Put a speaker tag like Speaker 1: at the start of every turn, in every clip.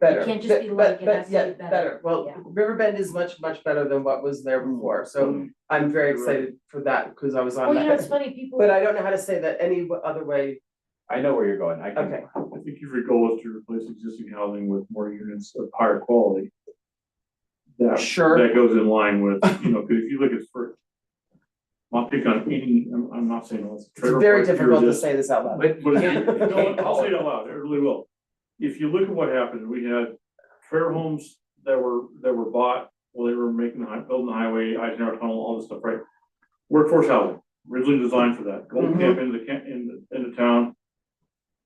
Speaker 1: better.
Speaker 2: can't just be
Speaker 1: Be-
Speaker 2: like,
Speaker 1: be-
Speaker 2: it has to
Speaker 1: yeah,
Speaker 2: be better.
Speaker 1: Well,
Speaker 2: Yeah.
Speaker 1: Riverbend is much, much better than what was
Speaker 3: Mm.
Speaker 1: there before, so I'm very excited for that, cause I was
Speaker 2: Well,
Speaker 1: on
Speaker 2: you know, it's
Speaker 1: that.
Speaker 2: funny, people.
Speaker 1: But I don't know how to say that any w- other way,
Speaker 4: I know where you're going, I
Speaker 1: okay,
Speaker 4: can,
Speaker 3: I think if your goal is to replace existing housing with more units of higher quality. That,
Speaker 1: sure,
Speaker 3: that goes in line with, you know, cause if you look at for. I'll pick on any, I'm, I'm not saying it's.
Speaker 1: it's very difficult to say this out loud.
Speaker 3: But, but, if you- no, I'll say it out loud, it really will. If you look at what happened, we had trailer homes that were, that were bought while they were making, the hi- building the highway, Eisenhower Tunnel, all this stuff, right? Workforce housing, originally designed for that, go
Speaker 1: Mhm.
Speaker 3: camp into the, camp- in, the- in the town.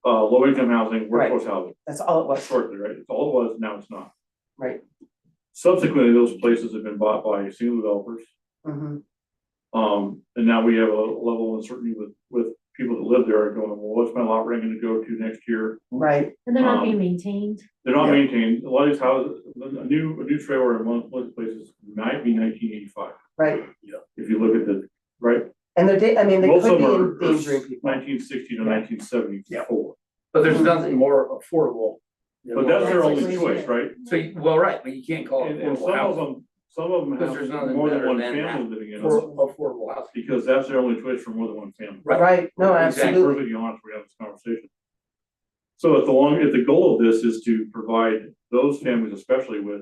Speaker 3: Uh, low income housing,
Speaker 1: Right.
Speaker 3: workforce housing,
Speaker 1: That's all it was,
Speaker 3: shortly, right, it's all it was, now it's not.
Speaker 1: Right.
Speaker 3: Subsequently, those places have been bought by single developers,
Speaker 1: Mhm.
Speaker 3: um, and now we have a level of uncertainty with, with people that live there are going, well, what's my lot rent gonna go to next year?
Speaker 1: right,
Speaker 2: And they're not being
Speaker 3: Um,
Speaker 2: maintained.
Speaker 3: They're not
Speaker 1: Yeah.
Speaker 3: maintained, a lot of these houses, a new, a new trailer in one, one of the places might be nineteen eighty-five,
Speaker 1: right,
Speaker 3: if you look at the, right?
Speaker 1: and they're, da- I mean, they
Speaker 3: Most
Speaker 1: could
Speaker 3: of
Speaker 1: be
Speaker 3: them are
Speaker 1: endangering people,
Speaker 3: nineteen sixty to
Speaker 1: Yeah.
Speaker 3: nineteen seventy-four,
Speaker 5: But there's nothing more affordable. than
Speaker 3: but that's
Speaker 5: what-
Speaker 3: their
Speaker 2: That's
Speaker 3: only
Speaker 2: like-
Speaker 3: choice, right?
Speaker 5: So, you- well, right, but you can't call it
Speaker 3: And, and
Speaker 5: affordable
Speaker 3: some of
Speaker 5: housing,
Speaker 3: them, some of them
Speaker 5: Oh, Because there's
Speaker 3: have
Speaker 5: nothing
Speaker 3: more than
Speaker 5: better
Speaker 3: one
Speaker 5: than that.
Speaker 3: family living in them,
Speaker 5: for affordable housing.
Speaker 3: because that's their only choice for more than one family.
Speaker 5: Right.
Speaker 1: right, no,
Speaker 3: To be
Speaker 1: absolutely,
Speaker 3: Perfectly honest, we have this conversation. So if the long, if the goal of this is to provide those families especially with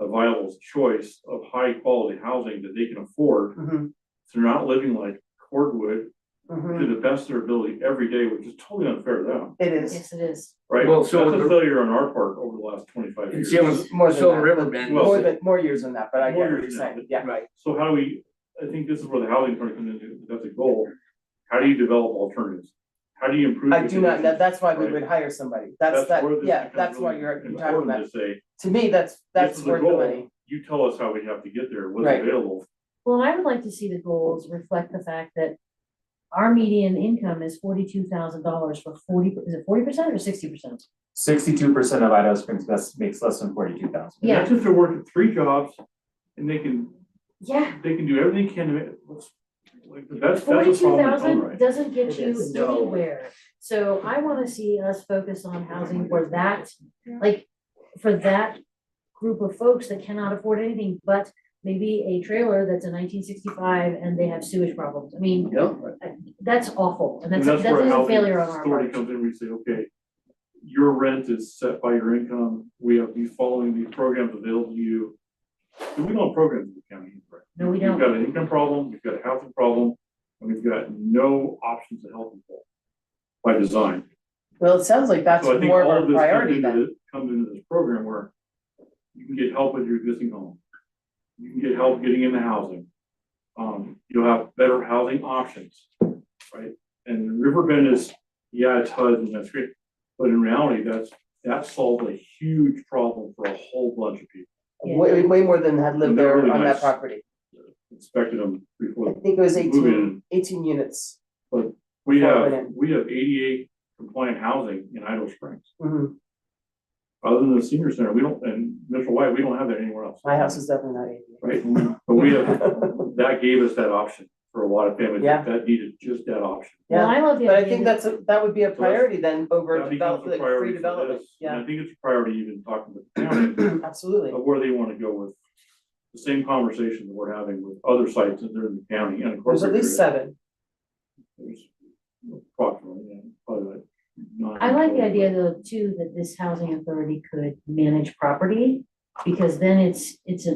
Speaker 3: a viable choice of high quality housing that they can afford,
Speaker 1: mhm,
Speaker 3: so they're not living like cordwood
Speaker 1: mhm,
Speaker 3: to the best of their ability every day, which is totally unfair to them,
Speaker 1: it is,
Speaker 2: Yes, it is.
Speaker 3: right?
Speaker 5: Well, so
Speaker 3: That's a
Speaker 5: the-
Speaker 3: failure on our part over the last twenty-five
Speaker 5: And
Speaker 3: years.
Speaker 5: see, I was-
Speaker 1: more than
Speaker 5: So
Speaker 1: that,
Speaker 5: Riverbend
Speaker 3: is-
Speaker 1: More than, more years than that, but I get
Speaker 3: More
Speaker 1: what you're
Speaker 3: years than that,
Speaker 1: saying,
Speaker 3: but-
Speaker 1: yeah,
Speaker 5: Right,
Speaker 3: So how do we, I think this is where the housing part comes into, that's a goal. How do you develop alternatives? How do you improve?
Speaker 1: I
Speaker 3: the
Speaker 1: do not, that,
Speaker 3: conditions?
Speaker 1: that's why we
Speaker 3: Right.
Speaker 1: would hire somebody, that's that,
Speaker 3: where this
Speaker 1: yeah,
Speaker 3: becomes
Speaker 1: that's why
Speaker 3: really
Speaker 1: you're, you're talking about,
Speaker 3: important To say,
Speaker 1: to me, that's, that's
Speaker 3: is the
Speaker 1: worth the
Speaker 3: goal.
Speaker 1: money,
Speaker 3: you tell us how we have to get there, what's
Speaker 1: Right.
Speaker 3: available.
Speaker 2: Well, and I would like to see the goals reflect the fact that our median income is forty-two thousand dollars for forty, is it forty percent or sixty percent?
Speaker 6: Sixty-two percent of Idaho Springs best makes less than forty-two thousand.
Speaker 3: And
Speaker 2: Yeah.
Speaker 3: That's if they're working three jobs and they can,
Speaker 2: Yeah,
Speaker 3: they can do everything they can to make, let's- like, that's, that's a
Speaker 2: forty-two
Speaker 3: problem in its own
Speaker 2: thousand
Speaker 3: right.
Speaker 2: doesn't get
Speaker 5: It
Speaker 2: you
Speaker 5: is. No.
Speaker 2: anywhere. So I wanna see us focus on housing for that, like, for that group of folks that cannot afford anything but maybe a trailer that's a nineteen sixty-five and they have sewage problems. I mean,
Speaker 5: yeah,
Speaker 2: that's awful, and
Speaker 3: And
Speaker 2: that's, that's
Speaker 3: where
Speaker 2: a
Speaker 3: housing
Speaker 2: failure on our part.
Speaker 3: authority comes in, we say, okay, your rent is set by your income, we have these following these programs available to you. And we don't program the county, right?
Speaker 2: No, we
Speaker 3: You've
Speaker 2: don't.
Speaker 3: got an income problem, you've got a housing problem, and we've got no options to help people by design.
Speaker 1: well, it sounds like that's
Speaker 3: So I think
Speaker 1: more
Speaker 3: all of
Speaker 1: of a
Speaker 3: this comes
Speaker 1: priority
Speaker 3: into
Speaker 1: then,
Speaker 3: this, comes into this program where you can get help with your existing home. You can get help getting into housing. Um, you'll have better housing options, right? And Riverbend is, yeah, it's HUD and that's great, but in reality, that's, that solved a huge problem for a whole bunch of people.
Speaker 2: Yeah.
Speaker 1: way, way more than had lived
Speaker 3: They're
Speaker 1: there
Speaker 3: really
Speaker 1: on that
Speaker 3: nice.
Speaker 1: property.
Speaker 3: Inspected them before.
Speaker 1: I think it was
Speaker 3: Moving
Speaker 1: 18
Speaker 3: in.
Speaker 1: 18 units,
Speaker 3: We
Speaker 1: Before it went
Speaker 3: have,
Speaker 1: in.
Speaker 3: we have eighty-eight compliant housing in Idaho Springs.
Speaker 1: Mhm.
Speaker 3: Other than the senior center, we don't, and Mitchell White, we don't have that anywhere else.
Speaker 1: my house is definitely not eighty.
Speaker 3: Right, but we have, that gave us that option for a lot of families,
Speaker 1: Yeah.
Speaker 3: that needed just that option.
Speaker 2: Well,
Speaker 1: Yeah,
Speaker 2: I love the
Speaker 1: but I
Speaker 2: idea
Speaker 1: think
Speaker 2: that,
Speaker 1: that's, a that would be a
Speaker 3: that's-
Speaker 1: priority then over
Speaker 3: That becomes a
Speaker 1: development, free
Speaker 3: priority for
Speaker 1: development,
Speaker 3: this, and
Speaker 1: yeah,
Speaker 3: I think it's a priority even talking with the county
Speaker 1: absolutely,
Speaker 3: of where they wanna go with the same conversation that we're having with other sites that are in the county and of course.
Speaker 1: there's at least seven,
Speaker 3: Approximately, yeah, probably like nine.
Speaker 2: I like the idea though, too, that this housing authority could manage property. Because then it's, it's a,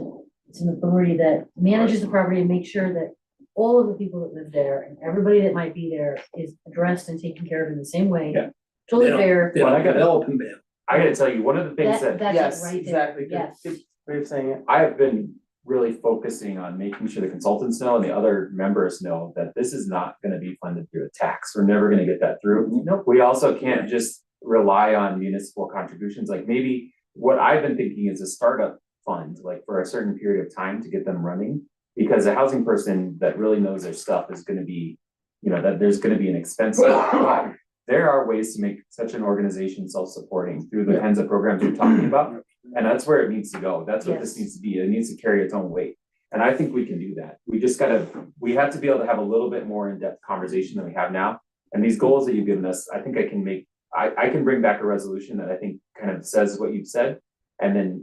Speaker 2: it's an authority that manages the property and makes sure that all of the people that live there and everybody that might be there is addressed and taken care of in the same way.
Speaker 4: Yeah.
Speaker 2: Totally
Speaker 5: Yeah.
Speaker 2: fair,
Speaker 5: yeah,
Speaker 6: Well, I
Speaker 5: like
Speaker 6: got-
Speaker 5: developing them.
Speaker 6: I gotta tell you, one of the things
Speaker 2: that, that's
Speaker 6: that
Speaker 1: yes,
Speaker 2: it right there,
Speaker 1: exactly, good,
Speaker 2: yes.
Speaker 1: good way of saying it,
Speaker 6: I have been really focusing on making sure the consultants know and the other members know that this is not gonna be funded through a tax. We're never gonna get that through.
Speaker 5: Nope.
Speaker 6: We also can't just rely on municipal contributions, like maybe what I've been thinking is a startup fund, like for a certain period of time to get them running. Because a housing person that really knows their stuff is gonna be, you know, that there's gonna be an expense. But There are ways to make such an organization self-supporting through the kinds of programs you're talking about. And that's where it needs to go. That's
Speaker 2: Yes.
Speaker 6: what this needs to be. It needs to carry its own weight. And I think we can do that. We just gotta, we have to be able to have a little bit more in-depth conversation than we have now. And these goals that you've given us, I think I can make I I can bring back a resolution that I think kind of says what you've said. And then